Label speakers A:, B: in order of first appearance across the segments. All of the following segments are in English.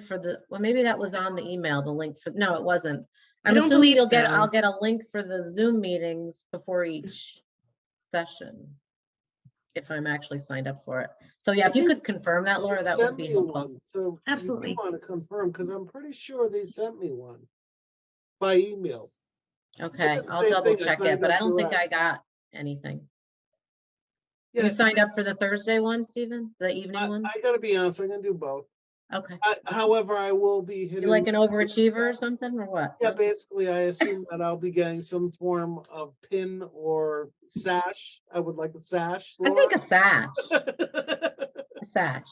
A: for the, well, maybe that was on the email, the link for, no, it wasn't.
B: I
A: I'm
B: don't
A: assuming
B: believe
A: you'll get,
B: so.
A: I'll get a link for the Zoom meetings before each session. If I'm actually signed up for it. So yeah, if you could confirm that, Laura, that would
C: Sent
A: be
C: me
A: helpful.
C: one, So.
B: Absolutely.
C: Want to confirm, because I'm pretty sure they sent me one by email.
A: Okay,
C: the
A: I'll
C: same
A: double
C: thing I
A: check it,
C: signed
A: but
C: up
A: I don't
C: to
A: think
C: that.
A: I got anything.
C: Yeah.
A: You signed up for the Thursday one, Stephen? The evening
C: I,
A: one?
C: I gotta be honest, I'm gonna do both.
A: Okay.
C: I, however, I will be
A: You
C: hitting.
A: like an overachiever or something or what?
C: Yeah, basically, I assume that I'll be getting some form of pin or sash. I would like a sash.
A: I think a
C: Laura.
A: sash, a sash.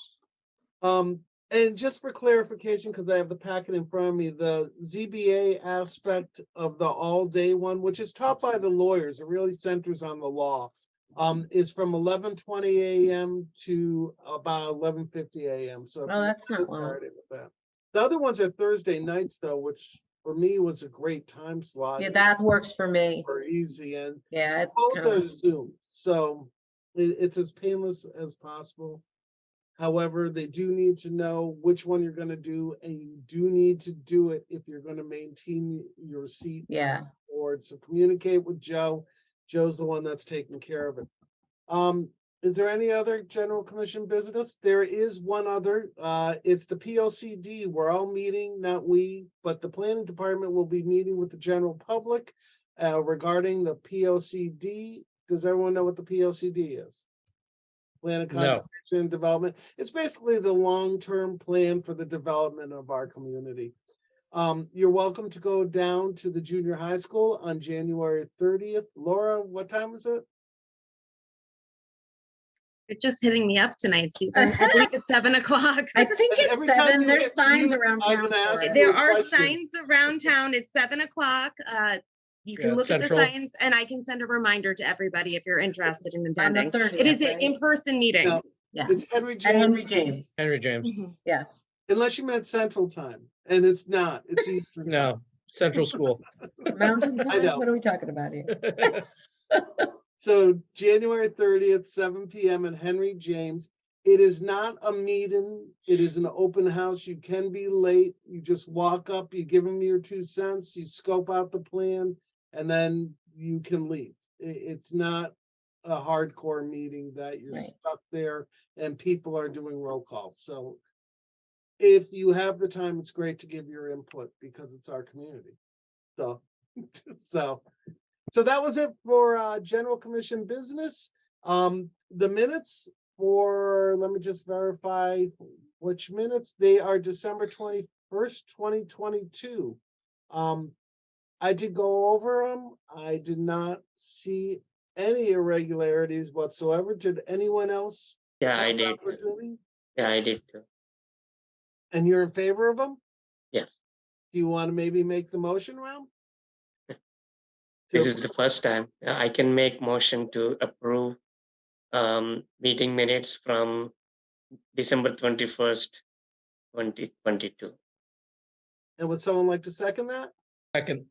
C: Um, and just for clarification, because I have the packet in front of me, the ZBA aspect of the all-day one, which is taught by the lawyers, it really centers on the law. Um,
A: Mm-hmm.
C: is from eleven twenty AM to about eleven fifty AM, so. if
A: Well,
C: you
A: Oh, that's not
C: want
A: long.
C: Saturday with that. The other ones are Thursday nights though, which for me was a great time slot.
A: Yeah, that works for me.
C: Super easy and
A: Yeah, it's
C: both
A: kinda-
C: are Zoom, so it, it's as painless as possible. However, they do need to know which one you're gonna do, and you do need to do it if you're gonna maintain your seat
A: yeah,
C: board, so communicate with Joe. Joe's the one that's taking care of it. Um, is there any other general commission business? There is one other, uh, it's the P O C D. We're all meeting, not we, but the planning department will be meeting with the general public uh, regarding the P O C D. Does everyone know what the P O C D is? Plan of
D: No.
C: conservation and development. It's basically the long-term plan for the development of our community. Um, you're welcome to go down to the junior high school on January thirtieth. Laura, what time is it?
B: You're just hitting me up tonight, Stephen. I think it's seven o'clock.
A: I think it's
C: Every time
A: seven.
C: you
A: There's
C: get
A: signs
C: music,
A: around
C: I'm
A: town.
C: gonna
A: for
C: ask
A: it.
C: you.
B: There
C: Good
B: are
C: question.
B: signs around town. It's seven o'clock. Uh, you
D: Yeah,
B: can look at the
D: central.
B: signs and I can send a reminder to everybody if you're interested in
A: On the
B: attending.
A: 30th,
B: It is an
A: right?
B: in-person meeting. Mm-hmm.
C: No,
A: Yeah.
C: It's Henry
A: And Henry
C: James,
A: James.
D: Henry James.
C: unless you meant Central Time, and it's not, it's Eastern. Time.
D: No, Central School.
A: Mountain Time?
C: know.
A: What are we talking about here?
C: So January thirtieth, seven PM at Henry James. It is not a meeting. It is an open house. You can be late. You just walk up, you give them your two cents, you scope out the plan, and then you can leave. I- it's not a hardcore meeting that you're
A: Right.
C: stuck there and people are doing roll call. So if you have the time, it's great to give your input because it's our community. So, so, so that was it for uh, general commission business. Um, the minutes for, let me just verify which minutes, they are December twenty-first, twenty twenty-two. Um, I did go over them. I did not see any irregularities whatsoever. Did anyone else?
E: Yeah, I
C: have an
E: did.
C: opportunity?
E: Yeah, I did. too.
C: And you're in favor of them?
E: Yes.
C: Do you want to maybe make the motion round?
E: This is the first time uh, I can make motion to approve um, meeting minutes from December twenty-first, twenty twenty-two.
C: And would someone like to second that?
D: Second,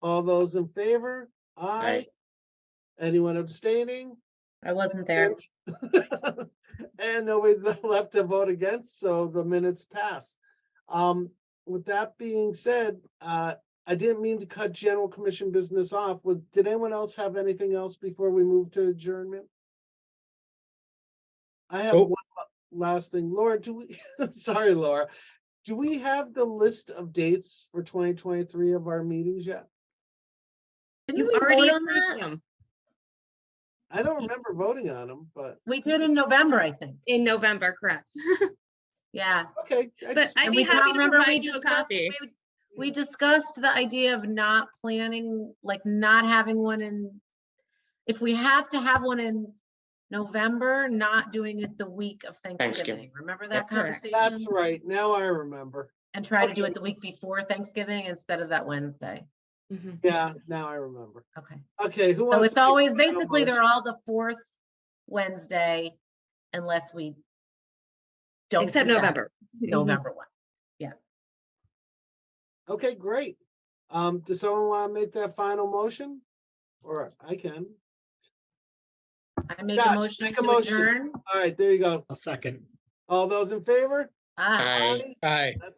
C: All those in favor? Aye.
E: Aye.
C: Anyone abstaining?
A: I wasn't there.
C: And nobody's left to vote against, so the minutes pass. Um, with that being said, uh, I didn't mean to cut general commission business off. Was, did anyone else have anything else before we move to adjournment? I have
D: Nope.
C: one last thing. Laura, do we, sorry, Laura. Do we have the list of dates for twenty twenty-three of our meetings yet?
A: Didn't
B: You
A: we
B: already
A: vote on that?
B: approved them
C: I don't remember voting on them, but
A: We did in November, I think.
B: in November, correct?
A: Yeah.
C: okay. I
B: But
C: just-
B: I'd
A: And
B: be
A: we
B: happy
A: talked-
B: to
A: remember we
B: provide you a
A: discussed-
B: copy.
A: we- We discussed the idea of not planning, like not having one in, if we have to have one in November, not doing it the week of Thanksgiving.
E: Thanksgiving.
A: Remember that
B: Correct.
A: conversation?
C: That's right. Now I remember.
A: And try to do
C: Okay.
A: it the week before Thanksgiving instead of that Wednesday.
B: Mhm.
C: Yeah, now I remember.
A: Okay.
C: Okay, who wants?
A: So
C: to
A: it's
C: make
A: always,
C: the final
A: basically, they're
C: motion?
A: all the fourth Wednesday unless we don't.
B: Except
A: do that
B: November.
C: Mm-hmm.
A: November one.
C: Okay, great. Um, does someone want to make that final motion? Or I can.
A: I make a
C: Josh,
A: motion
C: make a
A: to
C: motion.
A: adjourn.
C: All right, there you go.
D: a second.
C: All those in favor?
A: Aye.
E: Aye.
C: Aye.
D: Aye.
C: That's